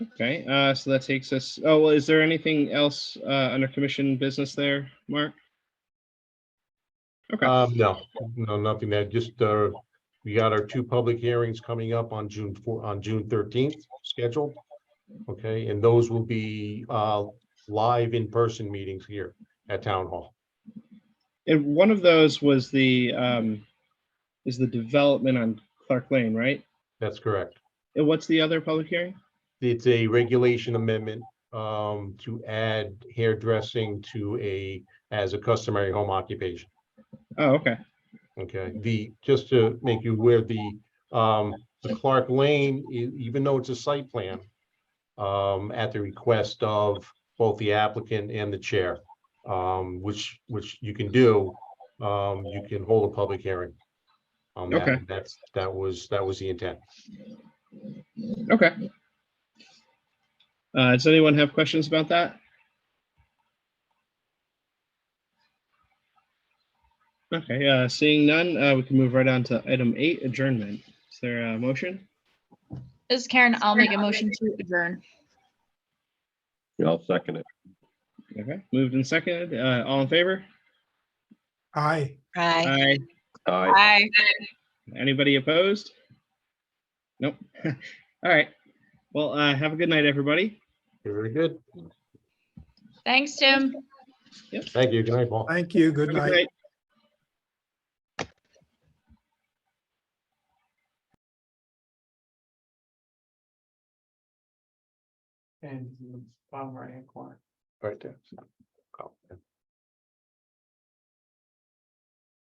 Okay, uh, so that takes us, oh, well, is there anything else, uh, under commission business there, Mark? Okay, Um, no, no, nothing that, just, uh, we got our two public hearings coming up on June four, on June thirteenth scheduled. Okay, and those will be, uh, live in-person meetings here at Town Hall. and one of those was the, um, is the development on Clark Lane, right? That's correct. And what's the other public hearing? It's a regulation amendment, um, to add hairdressing to a, as a customary home occupation. Oh, okay, Okay, the, just to make you aware, the, um, the Clark Lane, e- even though it's a site plan, um, at the request of both the applicant and the chair, um, which, which you can do, um, you can hold a public hearing. on that. Okay. That's, that was, that was the intent. okay. Uh, does anyone have questions about that? Okay, uh, seeing none, uh, we can move right on to item eight, adjournment. Is there a motion? This is Karen. I'll make a motion to adjourn. Yeah, I'll second it. Okay, moved and seconded, uh, all in favor? Aye. Aye. Aye. Aye. Aye. Anybody opposed? Nope. All right. Well, uh, have a good night, everybody. Very good. Thanks, Tim. Thank you. Good night, Paul. Thank you. Good Have a night. And bottom right hand corner. Right there.